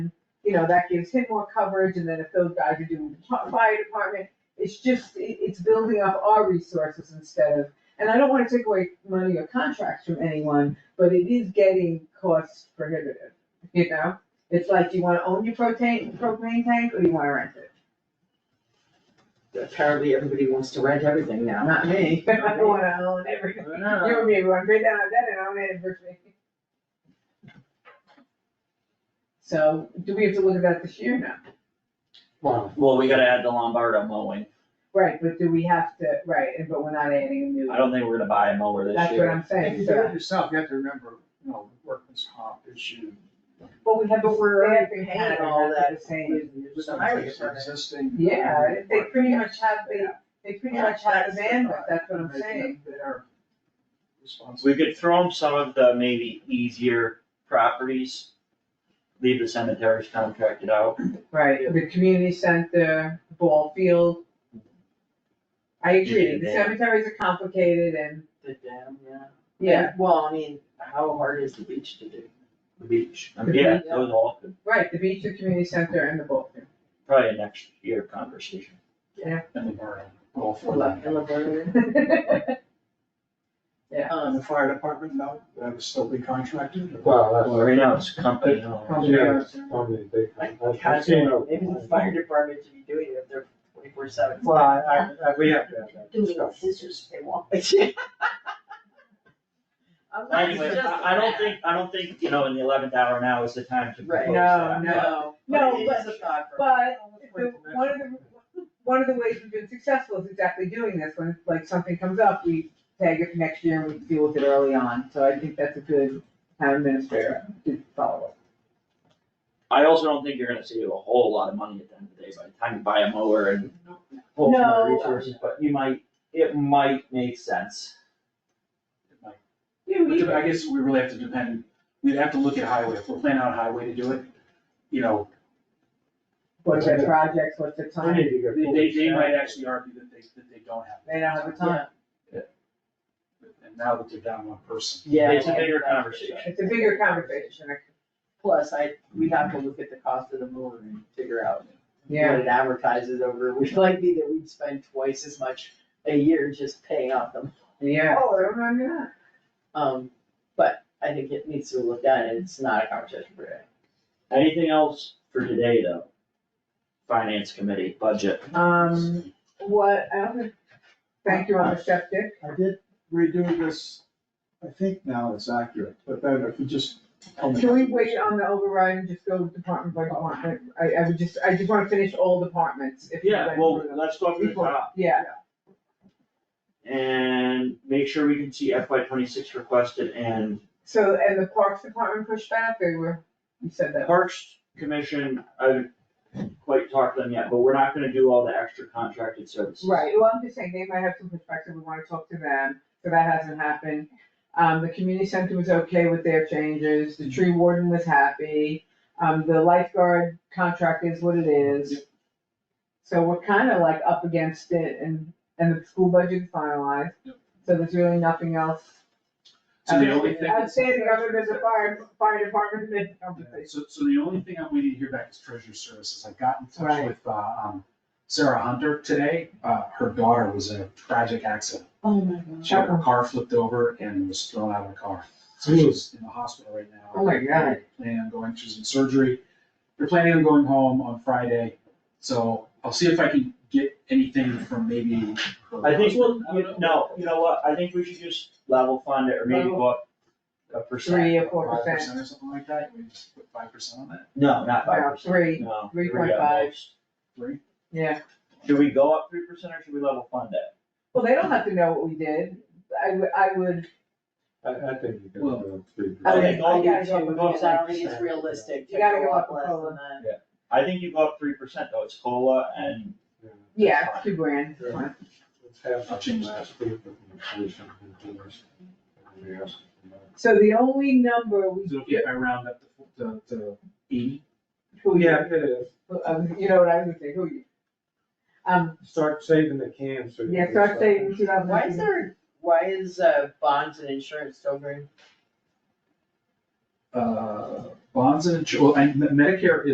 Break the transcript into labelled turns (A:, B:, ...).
A: you know, that gives him more coverage, and then if those guys are doing the fi- fire department, it's just, it, it's building up our resources instead of, and I don't wanna take away money or contracts from anyone, but it is getting cost prohibitive, you know? It's like, you wanna own your propane, propane tank, or you wanna rent it?
B: Apparently, everybody wants to rent everything now.
A: Not me, I don't wanna own everything. You
B: No.
A: would be one great down that and I'm in everything. So, do we have to look at that this year now?
B: Well,
C: Well, we gotta add the Lombardo mowing.
A: Right, but do we have to, right, and but we're not adding a new.
C: I don't think we're gonna buy a mower this
A: That's what
C: year.
A: I'm
D: If
A: saying,
D: you do
A: so,
D: it yourself, you have to remember, you know, the workman's comp issue.
A: well, we have a
B: But we're already
A: staffing
B: paying
A: pattern,
B: all
A: that's
B: that.
A: the same.
D: It's
B: the
D: not
B: highway
D: like it's
B: department.
D: Existing.
A: Yeah, they pretty much have the, they pretty
B: Yeah,
A: much have
B: that's
A: the
B: the
A: bandwidth,
B: thought.
A: that's what I'm saying.
D: They're responsible.
C: We could throw them some of the maybe easier properties, leave the cemeteries contracted out.
A: Right, the community center, ball field. I agree, the
C: Yeah.
A: cemeteries are complicated and,
B: The dam, yeah.
A: yeah,
B: Well, I mean, how hard is the beach to do?
C: The beach. I mean, yeah, those all could,
A: right, the beach, the community center and the ball field.
C: probably a next year conversation.
D: And the burn, all for that.
B: In Laverne?
E: uh,
D: And
B: Um,
D: the fire department, no, that would still be contracted.
C: Well,
E: Well,
C: right now it's company owned.
E: that's, yeah, it's probably big.
B: Like,
E: I've seen it.
B: Maybe the fire department should be doing it if they're twenty-four seven.
E: Well, I, I- I, we have to have that
F: doing
E: discussion.
F: scissors if they want.
B: I'm not
C: Anyway,
B: suggesting
C: I, I don't
B: that.
C: think, I don't think, you know, in the eleventh hour now is the time to
B: Right.
C: propose
A: No,
C: that.
A: no,
B: But
A: no,
B: it
A: but,
B: is a thought for-
A: but the, one of the, one of the ways we've been successful is exactly doing this, when like something comes up, we tag it for next year and we deal with it early on, so I think that's a good town administrator to follow up.
C: I also don't think you're gonna save a whole lot of money at the end of the day by the time you buy a mower and pull some of the
A: No.
C: resources, but you might, it might make sense.
A: You,
D: But I guess we really have to depend, we'd have to look at highway, if we're planning on highway to do it, you know,
A: what's their projects, what's their
E: I
A: time,
E: need to get
D: they, they, they
E: full
D: might
E: staff.
D: actually argue that they, that they don't have.
A: they don't have the time,
D: And now that they're down one person.
B: Yeah.
C: It's a
B: like
C: bigger
B: that.
C: conversation.
A: it's a bigger conversation,
B: Plus, I, we have to look at the cost of the moon and figure out
A: yeah.
B: what it advertises over. Which might be that we'd spend twice as much a year just paying off them.
A: Yeah. Oh, I remember
B: Um, but I think it needs to be looked at and it's not a conversation for today.
C: Anything else for today, though? Finance committee, budget.
A: that. Um, what, I don't think, thank you on the septic,
E: I did redo this, I think now it's accurate, but then if you just. tell me-
A: can we wait on the override and just go department by department? I, I would just, I just wanna finish all departments, if you
C: Yeah, well, let's go over the top
A: Yeah,
C: and make sure we can see FY twenty-six requested and
A: so, and the Parks Department pushed back, they were, you said that.
C: Parks Commission, I haven't quite talked to them yet, but we're not gonna do all the extra contracted services.
A: Right, well, I'm just saying, they might have some perspective, we wanna talk to them, so that hasn't happened. Um, the community center was okay with their changes, the tree warden was happy, um, the lifeguard contract is what it is. So we're kinda like up against it and, and the school budget's finalized, so there's really nothing else.
D: So the only thing.
A: I'd say the other than the fire, fire department, they-
D: Yeah, So, so the only thing I'm waiting to hear back is treasurer services. I got in touch
A: Right.
D: with, uh, um, Sarah Hunter today. Uh, her daughter was in a tragic accident.
B: Oh my god.
D: She had her car flipped over and was thrown out of the car. So she's in the hospital right now.
A: Oh my God.
D: They're Planning on going, she's in surgery. They're planning on going home on Friday. So I'll see if I can get anything from maybe. her-
C: I think we'll, you- no, you know what, I think we should just level fund it or maybe go up a percent.
A: three or four
D: Five
A: percent,
D: percent or something like that. We just put five percent on that,
C: No, not five
A: no,
C: percent.
A: three,
C: No.
A: Three
C: we
A: point
C: got
A: five.
C: most.
D: three.
A: yeah.
C: Should we go up three percent or should we level fund it?
A: Well, they don't have to know what we did. I would, I would,
E: I, I think you can
D: Well-
E: do it three.
C: I
B: I
C: think all
B: gotta
C: these
B: go
C: are
B: with
C: both
B: it. I don't think it's
E: like-
B: realistic to
A: You gotta
B: go
A: go
B: up
A: up
B: less
A: cola.
B: than that.
C: I think you go up three percent though, it's COLA and
A: yeah, it's two grand. it's fine.
E: Let's have a change last week with the inflation and dollars. And we ask for that.
A: So the only number we,
D: So if I round up to, to, to eighty,
A: who you,
E: Oh, Yeah, it is.
A: um, you know what I would say, who you. Um,
E: Start saving the cans. so you
A: yeah,
E: can
A: so I'd say in two thousand.
B: Why is there, why is, uh, bonds and insurance still green?
D: uh, bonds and, insur- well, and Medicare is.